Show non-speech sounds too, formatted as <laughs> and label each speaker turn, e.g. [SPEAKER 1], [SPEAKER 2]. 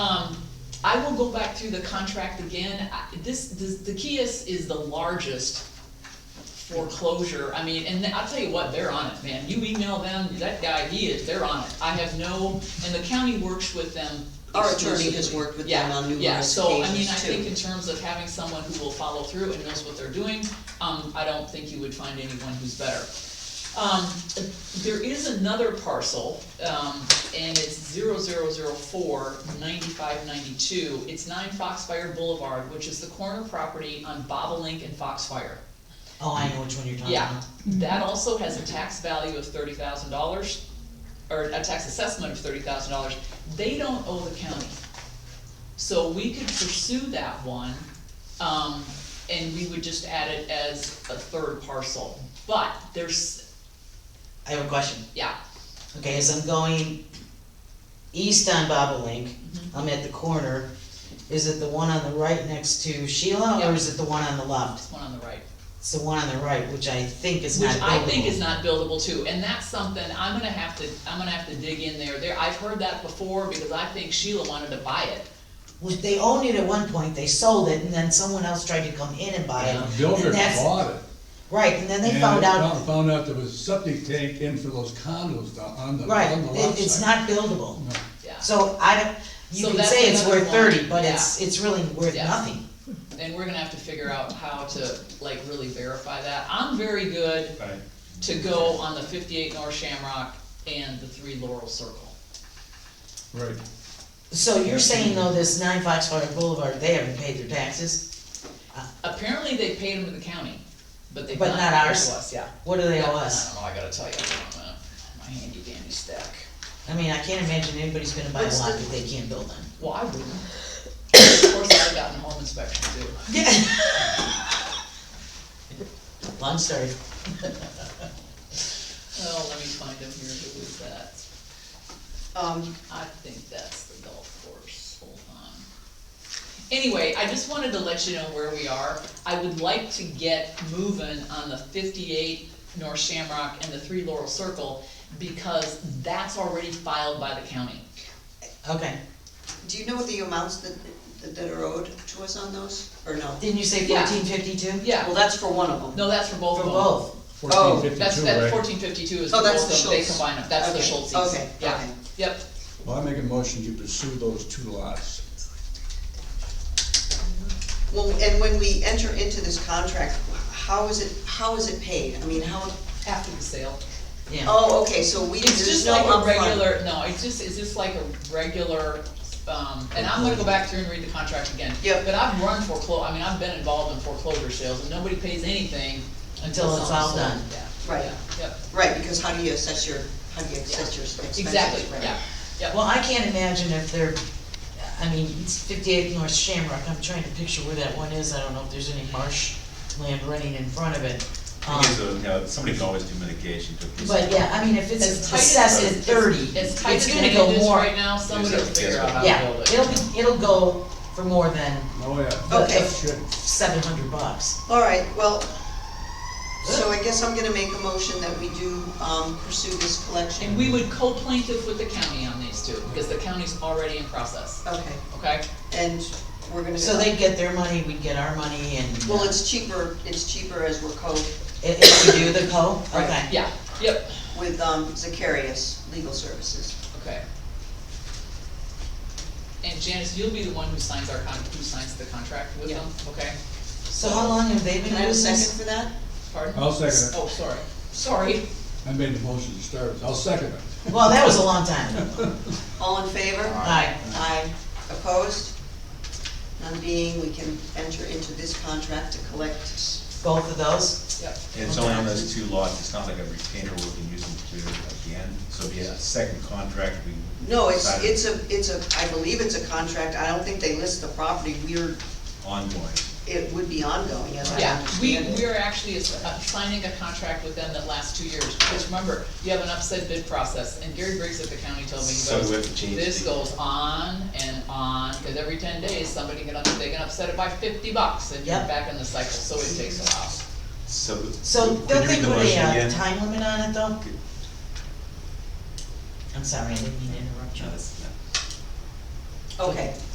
[SPEAKER 1] Um, I will go back through the contract again, I, this, this, the Kias is the largest foreclosure, I mean, and I'll tell you what, they're on it, man, you email them, that guy, he is, they're on it, I have no, and the county works with them
[SPEAKER 2] Our attorney has
[SPEAKER 1] exclusively.
[SPEAKER 2] worked with
[SPEAKER 1] Yeah,
[SPEAKER 2] them on
[SPEAKER 1] Yeah,
[SPEAKER 2] numerous
[SPEAKER 1] so, I mean, I
[SPEAKER 2] occasions, too.
[SPEAKER 1] think in terms of having someone who will follow through and knows what they're doing, um, I don't think you would find anyone who's better. Um, there is another parcel, um, and it's zero zero zero four ninety-five ninety-two. It's nine Foxfire Boulevard, which is the corner property on Bobolink and Foxfire.
[SPEAKER 2] Oh, I know which one you're talking
[SPEAKER 1] Yeah.
[SPEAKER 2] about.
[SPEAKER 1] That also has a tax value of thirty thousand dollars, or a tax assessment of thirty thousand dollars. They don't owe the county. So we could pursue that one, um, and we would just add it as a third parcel. But there's,
[SPEAKER 2] I have a question.
[SPEAKER 1] yeah,
[SPEAKER 2] Okay, as I'm going east on Bobolink,
[SPEAKER 1] Mm-hmm.
[SPEAKER 2] I'm at the corner, is it the one on the right next to Sheila, or
[SPEAKER 1] Yeah.
[SPEAKER 2] is it the one on the left?
[SPEAKER 1] this one on the right.
[SPEAKER 2] It's the one on the right, which I think is not
[SPEAKER 1] Which I think
[SPEAKER 2] buildable.
[SPEAKER 1] is not buildable too, and that's something, I'm gonna have to, I'm gonna have to dig in there, there, I've heard that before, because I think Sheila wanted to buy it.
[SPEAKER 2] Well, they owned it at one point, they sold it, and then someone else tried to come in and buy it.
[SPEAKER 1] Yeah.
[SPEAKER 2] and
[SPEAKER 3] Builder
[SPEAKER 2] that's-
[SPEAKER 3] bought it.
[SPEAKER 2] Right, and then they
[SPEAKER 3] and
[SPEAKER 2] found
[SPEAKER 3] found-
[SPEAKER 2] out,
[SPEAKER 3] Found out there was a septic tank in for those condos down on the,
[SPEAKER 2] right,
[SPEAKER 3] on the
[SPEAKER 2] it,
[SPEAKER 3] lot
[SPEAKER 2] it's
[SPEAKER 3] side.
[SPEAKER 2] not buildable.
[SPEAKER 3] No.
[SPEAKER 1] Yeah,
[SPEAKER 2] So I don't,
[SPEAKER 1] So
[SPEAKER 2] you can
[SPEAKER 1] that's
[SPEAKER 2] say it's
[SPEAKER 1] another
[SPEAKER 2] worth
[SPEAKER 1] one,
[SPEAKER 2] thirty, but it's, it's really worth
[SPEAKER 1] Yeah.
[SPEAKER 2] nothing.
[SPEAKER 1] and we're gonna have to figure out how to, like, really verify that. I'm very good
[SPEAKER 4] Right.
[SPEAKER 1] to go on the fifty-eight North Shamrock and the three Laurel Circle.
[SPEAKER 3] Right,
[SPEAKER 1] Oh,
[SPEAKER 2] So you're saying though, this nine Foxfire Boulevard, they haven't paid their taxes,
[SPEAKER 1] Apparently, they paid them to the county, but they.
[SPEAKER 2] But not ours.
[SPEAKER 1] Yeah.
[SPEAKER 2] what do they
[SPEAKER 1] Yeah,
[SPEAKER 2] owe us?
[SPEAKER 1] I don't know, I gotta tell you, hold on a minute. my handy dandy stack.
[SPEAKER 2] I mean, I can't imagine anybody's gonna buy a
[SPEAKER 1] What's
[SPEAKER 2] lot
[SPEAKER 1] the-
[SPEAKER 2] that they can't
[SPEAKER 1] <laughs>
[SPEAKER 2] build on.
[SPEAKER 1] Well, I
[SPEAKER 2] <coughs>
[SPEAKER 1] wouldn't. Of course, I've gotten home inspection too.
[SPEAKER 2] Yeah. Long story.
[SPEAKER 1] Oh, let me find him here, who was that?
[SPEAKER 5] Um,
[SPEAKER 1] I think that's the golf course, hold on. Anyway, I just wanted to let you know where we are. I would like to get moving on the fifty-eight North Shamrock and the Three Laurel Circle, because that's already filed by the county.
[SPEAKER 2] Okay.
[SPEAKER 5] do you know the amounts that, that- that are owed to us on those, or no?
[SPEAKER 2] Didn't you say
[SPEAKER 1] Yeah.
[SPEAKER 2] fourteen fifty-two?
[SPEAKER 1] Yeah.
[SPEAKER 5] Well, that's for one of them.
[SPEAKER 1] No, that's for both of
[SPEAKER 2] For
[SPEAKER 1] them.
[SPEAKER 2] both.
[SPEAKER 5] Oh,
[SPEAKER 3] fourteen
[SPEAKER 1] That's,
[SPEAKER 3] fifty-two,
[SPEAKER 1] that
[SPEAKER 3] right?
[SPEAKER 1] fourteen fifty-two is for
[SPEAKER 5] Oh, that's
[SPEAKER 1] both of
[SPEAKER 5] the
[SPEAKER 1] them, they
[SPEAKER 5] Schultz.
[SPEAKER 1] combine them, that's the
[SPEAKER 5] Okay,
[SPEAKER 1] Schultzes.
[SPEAKER 5] okay,
[SPEAKER 1] Yeah,
[SPEAKER 5] okay.
[SPEAKER 1] yep,
[SPEAKER 3] Well, I make a motion you pursue those two lots.
[SPEAKER 5] Well, and when we enter into this contract, how is it, how is it paid? I mean, how,
[SPEAKER 1] after the sale.
[SPEAKER 2] Yeah.
[SPEAKER 5] oh, okay, so we,
[SPEAKER 1] It's
[SPEAKER 5] there's
[SPEAKER 1] just
[SPEAKER 5] no
[SPEAKER 1] like a
[SPEAKER 5] upfront.
[SPEAKER 1] regular, no, it's just, it's just like a regular, um, and I'm gonna go back through and read the contract again.
[SPEAKER 5] Yep.
[SPEAKER 1] But I've run foreclosure, I mean, I've been involved in foreclosure sales, and nobody pays anything until
[SPEAKER 2] Until it's
[SPEAKER 1] something's
[SPEAKER 2] all
[SPEAKER 1] sold.
[SPEAKER 2] done.
[SPEAKER 1] Yeah,
[SPEAKER 5] Right.
[SPEAKER 1] yeah, yep,
[SPEAKER 5] Right, because how do you assess your, how do you assess your expenses?
[SPEAKER 1] exactly,
[SPEAKER 5] right?
[SPEAKER 1] yeah, yep.
[SPEAKER 2] Well, I can't imagine if they're, I mean, it's fifty-eight North Shamrock, I'm trying to picture where that one is, I don't know if there's any marsh land running in front of it. Um,
[SPEAKER 6] Thing is, uh, you know, somebody can always do mitigation to a piece of.
[SPEAKER 2] But yeah, I mean, if it's
[SPEAKER 1] As tight as-
[SPEAKER 2] assessed at thirty,
[SPEAKER 1] As tight as
[SPEAKER 2] it's
[SPEAKER 1] it
[SPEAKER 2] gonna go
[SPEAKER 1] is
[SPEAKER 2] more.
[SPEAKER 1] right now, somebody will
[SPEAKER 6] Exactly,
[SPEAKER 1] figure
[SPEAKER 6] yes.
[SPEAKER 1] out how
[SPEAKER 2] Yeah,
[SPEAKER 1] to build it.
[SPEAKER 2] it'll be, it'll go for more than
[SPEAKER 3] Oh, yeah.
[SPEAKER 5] Okay.
[SPEAKER 3] Shit.
[SPEAKER 2] seven hundred bucks.
[SPEAKER 5] All right, well, so I guess I'm gonna make a motion that we do, um, pursue this collection.
[SPEAKER 1] And we would co-plaintiff with the county on these two, because the county's already in process,
[SPEAKER 5] Okay,
[SPEAKER 1] okay?
[SPEAKER 5] and we're gonna.
[SPEAKER 2] So they'd get their money, we'd get our money, and
[SPEAKER 5] Well, it's cheaper, it's cheaper as we're co,
[SPEAKER 2] if if we do the co,
[SPEAKER 5] Right,
[SPEAKER 2] okay.
[SPEAKER 1] Yeah, yep,
[SPEAKER 5] with, um, Zacharias Legal Services.
[SPEAKER 1] Okay. And Janice, you'll be the one who signs our con, who signs the contract with them, okay?
[SPEAKER 2] So how long have they been
[SPEAKER 5] Can I have a
[SPEAKER 2] doing
[SPEAKER 5] second
[SPEAKER 2] this?
[SPEAKER 5] for that?
[SPEAKER 1] Pardon?
[SPEAKER 3] I'll second
[SPEAKER 1] Oh, sorry, sorry.
[SPEAKER 3] it. I made the motion to start with. I'll second it.
[SPEAKER 2] Well, that was a long time ago.
[SPEAKER 5] All in favor?
[SPEAKER 2] Aye.
[SPEAKER 5] Aye. Opposed? None being, we can enter into this contract to collect.
[SPEAKER 2] Both of those?
[SPEAKER 1] Yep,
[SPEAKER 6] It's only on those two lots, it's not like a retainer where we can use them to, at the end, so it'd be a second contract, we.
[SPEAKER 5] No, it's,
[SPEAKER 6] decided
[SPEAKER 5] it's a, it's a, I believe it's a contract, I don't think they list the property, we're,
[SPEAKER 6] Ongoing.
[SPEAKER 5] it would be ongoing, as I
[SPEAKER 1] yeah, we,
[SPEAKER 5] understand
[SPEAKER 1] we
[SPEAKER 5] it.
[SPEAKER 1] are actually as- uh, signing a contract with them that lasts two years, because remember, you have an upset bid process, and Gary Briggs at the county told me, he
[SPEAKER 6] So we
[SPEAKER 1] goes,
[SPEAKER 6] have to change.
[SPEAKER 1] this
[SPEAKER 6] the-
[SPEAKER 1] goes on and on, because every ten days, somebody can, up- they can upset it by fifty bucks, and you're
[SPEAKER 2] Yep.
[SPEAKER 1] back in the cycle, so it takes a while.
[SPEAKER 6] So.
[SPEAKER 2] So
[SPEAKER 6] could
[SPEAKER 2] don't
[SPEAKER 6] you
[SPEAKER 2] they
[SPEAKER 6] read the
[SPEAKER 2] put a
[SPEAKER 6] motion
[SPEAKER 2] uh,
[SPEAKER 6] again?
[SPEAKER 2] time limit on it though?
[SPEAKER 6] Good.
[SPEAKER 2] I'm sorry, I didn't mean to interrupt you.
[SPEAKER 6] No, that's- no.
[SPEAKER 5] Okay.